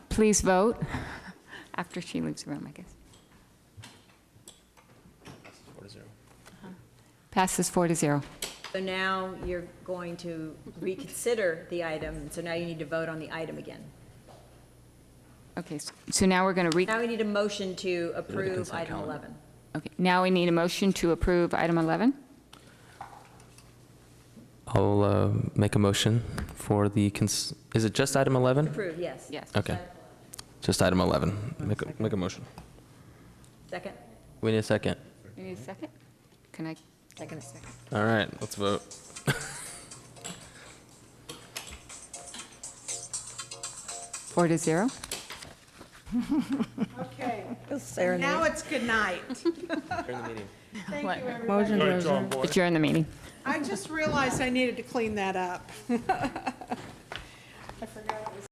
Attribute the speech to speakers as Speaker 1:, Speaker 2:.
Speaker 1: Please vote after she leaves the room, I guess. Uh-huh. Passes four to zero.
Speaker 2: So now you're going to reconsider the item, so now you need to vote on the item again.
Speaker 1: Okay, s- so now we're going to re,
Speaker 2: Now we need a motion to approve item 11.
Speaker 1: okay, now we need a motion to approve item 11.
Speaker 3: I'll uh, make a motion for the, cons- is it just item 11?
Speaker 2: Approve, yes.
Speaker 1: Yes.
Speaker 3: Okay, just item 11. Make a, make a motion.
Speaker 2: Second?
Speaker 3: We need a second.
Speaker 1: You need a second? Can I,
Speaker 2: Second.
Speaker 3: All right, let's vote.
Speaker 1: four to zero?
Speaker 4: Okay. Now it's good night. Thank you, everybody.
Speaker 1: Adjourn the meeting.
Speaker 4: I just realized I needed to clean that up.